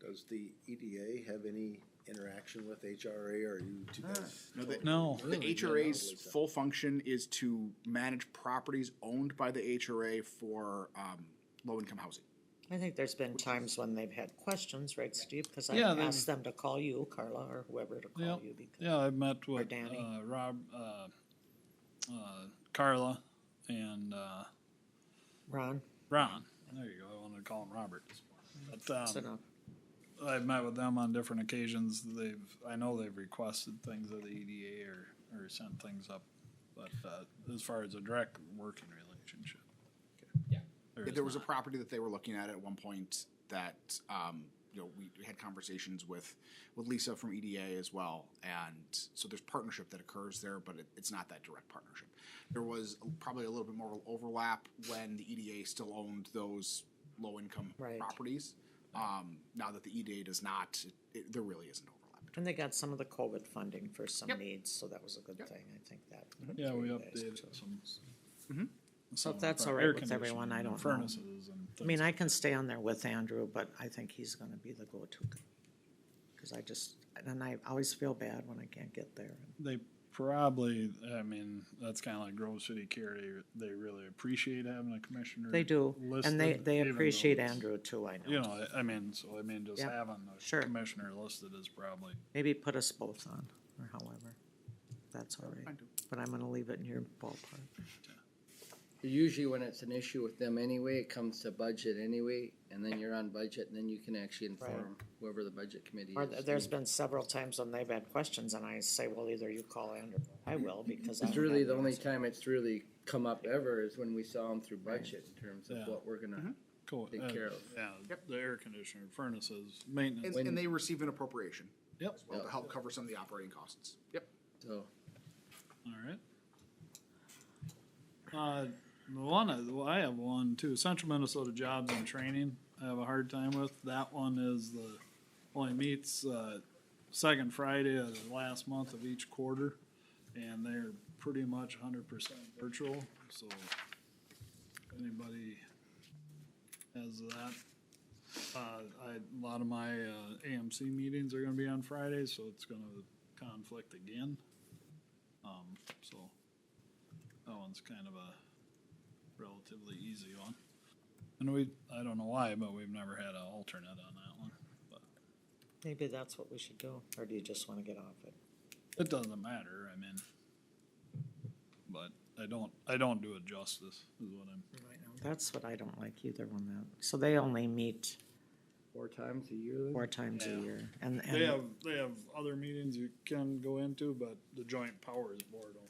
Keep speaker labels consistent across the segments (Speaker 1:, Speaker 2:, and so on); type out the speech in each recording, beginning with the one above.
Speaker 1: Does the EDA have any interaction with HRA or are you two guys?
Speaker 2: Ah. No, they-
Speaker 3: No.
Speaker 2: The HRA's
Speaker 1: so.
Speaker 2: full function is to manage properties owned by the HRA for um, low-income housing.
Speaker 4: I think there's been times when they've had questions, right, Steve? Because I
Speaker 3: Yeah, they-
Speaker 4: asked them to call you, Carla, or whoever to
Speaker 3: Yeah,
Speaker 4: call you because,
Speaker 3: yeah, I met with,
Speaker 4: Danny.
Speaker 3: uh, Rob, uh, uh, Carla and, uh,
Speaker 4: Ron,
Speaker 3: Ron. There you go. I wanted to call him Robert. But,
Speaker 4: it's
Speaker 3: um,
Speaker 4: enough.
Speaker 3: I've met with them on different occasions. They've, I know they've requested things of the EDA or, or sent things up. But, uh, as far as a direct working relationship.
Speaker 5: Yeah.
Speaker 3: There
Speaker 2: Yeah,
Speaker 3: is
Speaker 2: There was a
Speaker 3: not.
Speaker 2: property that they were looking at at one point that, um, you know, we we had conversations with, with Lisa from EDA as well. And so there's partnership that occurs there, but it, it's not that direct partnership. There was probably a little bit more overlap when the EDA still owned those low-income
Speaker 4: Right.
Speaker 2: properties. Um, now that the EDA does not, it, it, there really isn't overlap.
Speaker 4: And they got some of the COVID funding for some
Speaker 2: Yep.
Speaker 4: needs, so that was a good thing, I think that.
Speaker 3: Mm-hmm. Yeah, we
Speaker 4: that's very
Speaker 3: updated
Speaker 4: nice.
Speaker 3: some.
Speaker 4: So
Speaker 3: some
Speaker 4: if that's
Speaker 3: for
Speaker 4: all
Speaker 3: air
Speaker 4: right with everyone,
Speaker 3: conditioning
Speaker 4: I
Speaker 3: and
Speaker 4: don't know.
Speaker 3: Furnaces and.
Speaker 4: I mean, I can stay on there with Andrew, but I think he's gonna be the go-to. guy. Cause I just, and I always feel bad when I can't get there.
Speaker 3: They probably, I mean, that's kind of like Grove City Care. They, they really appreciate having a commissioner.
Speaker 4: They do, and they,
Speaker 3: listed,
Speaker 4: they
Speaker 3: even though
Speaker 4: appreciate
Speaker 3: it's-
Speaker 4: Andrew too, I
Speaker 3: You
Speaker 4: know.
Speaker 3: know, I I mean, so I mean, just
Speaker 4: Yeah,
Speaker 3: having the
Speaker 4: sure.
Speaker 3: commissioner listed is probably,
Speaker 4: Maybe put us both on, or however. That's all right,
Speaker 2: fine, too.
Speaker 4: but I'm gonna leave it in your ballpark.
Speaker 5: Usually when it's an issue with them anyway, it comes to budget anyway, and then you're on budget, and then you can actually inform whoever the budget committee
Speaker 4: Or
Speaker 5: is.
Speaker 4: th- there's been several times when they've had questions and I say, well, either you call Andrew, or I will, because. I
Speaker 5: It's
Speaker 4: don't
Speaker 5: really
Speaker 4: have
Speaker 5: the
Speaker 4: an
Speaker 5: only
Speaker 4: answer.
Speaker 5: time it's really come up ever is when we saw them through budget in terms
Speaker 3: Yeah.
Speaker 5: of what we're
Speaker 4: Mm-hmm.
Speaker 5: gonna,
Speaker 3: cool.
Speaker 5: Take
Speaker 3: uh,
Speaker 5: care of.
Speaker 3: Yeah,
Speaker 2: Yep.
Speaker 3: the air conditioner, furnaces,
Speaker 2: And,
Speaker 3: maintenance.
Speaker 5: When-
Speaker 2: and they receive an appropriation
Speaker 3: Yep,
Speaker 2: as well to
Speaker 5: Yeah.
Speaker 2: help cover some of the operating costs. Yep.
Speaker 5: so.
Speaker 3: all right. Uh, the one, I- well, I have one too, Central Minnesota Jobs and Training, I have a hard time with. That one is the, only meets, uh, second Friday of the last month of each quarter. And they're pretty much hundred percent virtual, so if anybody has that. Uh, I, a lot of my, uh, AMC meetings are gonna be on Fridays, so it's gonna conflict again. Um, so that one's kind of a relatively easy one. And we, I don't know why, but we've never had an alternate on that one.
Speaker 4: Maybe that's what we should do, or do you just wanna get off it?
Speaker 3: It doesn't matter, I mean. But I don't, I don't do it justice, is what I'm,
Speaker 4: That's what I don't like either one that, so they only meet
Speaker 5: Four times a year then?
Speaker 4: four times a
Speaker 3: Yeah.
Speaker 4: year and,
Speaker 3: they have,
Speaker 4: and,
Speaker 3: they have other meetings you can go into, but the joint powers board only.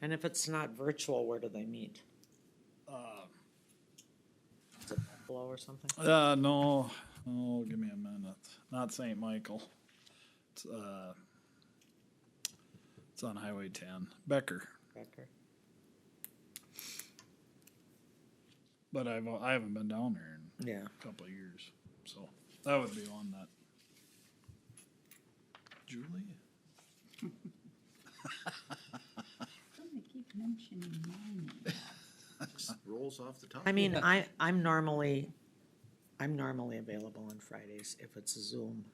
Speaker 4: and if it's not virtual, where do they meet?
Speaker 3: Uh,
Speaker 4: Is it Buffalo or something?
Speaker 3: uh, no, oh, give me a minute, not Saint Michael. It's, uh, it's on Highway ten, Becker.
Speaker 4: Becker?
Speaker 3: But I've I haven't been down there in
Speaker 4: Yeah,
Speaker 3: a couple of years, so that would be on that. Julie,
Speaker 6: They keep mentioning my name.
Speaker 1: Rolls off the top.
Speaker 4: I mean, I, I'm normally, I'm normally available on Fridays if it's Zoom.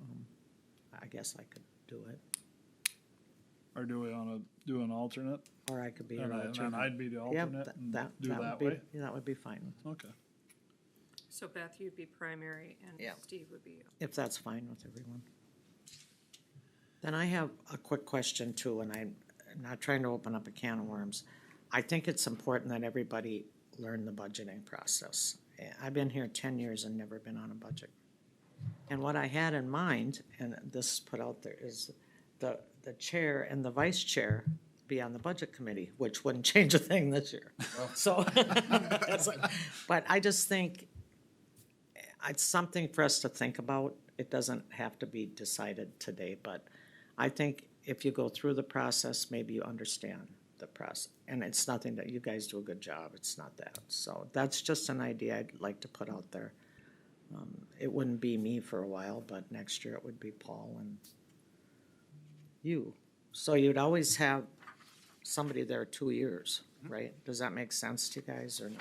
Speaker 4: Um, I guess I could do it,
Speaker 3: or do we want to do an alternate?
Speaker 4: or I could be
Speaker 3: And,
Speaker 4: your
Speaker 3: I, and
Speaker 4: alternate.
Speaker 3: I'd be the
Speaker 4: Yeah,
Speaker 3: alternate
Speaker 4: th-
Speaker 3: and
Speaker 4: that,
Speaker 3: do
Speaker 4: that
Speaker 3: that,
Speaker 4: would
Speaker 3: way.
Speaker 4: be, yeah, that would be fine,
Speaker 3: Okay.
Speaker 7: So Beth, you'd be primary and
Speaker 4: Yeah.
Speaker 7: Steve would be.
Speaker 4: if that's fine with everyone. Then I have a quick question too, and I'm not trying to open up a can of worms. I think it's important that everybody learn the budgeting process. Eh, I've been here ten years and never been on a budget. And what I had in mind, and this is put out there, is the, the chair and the vice chair be on the budget committee, which wouldn't change a thing this year. So, it's like- but I just think it's something for us to think about. It doesn't have to be decided today, but I think if you go through the process, maybe you understand the process. And it's nothing that you guys do a good job. It's not that. So that's just an idea I'd like to put out there. Um, it wouldn't be me for a while, but next year it would be Paul and you. So you'd always have somebody there two years, right? Does that make sense to you guys or no?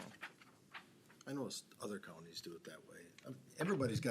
Speaker 1: I know s- other counties do it that way. Um, Everybody's got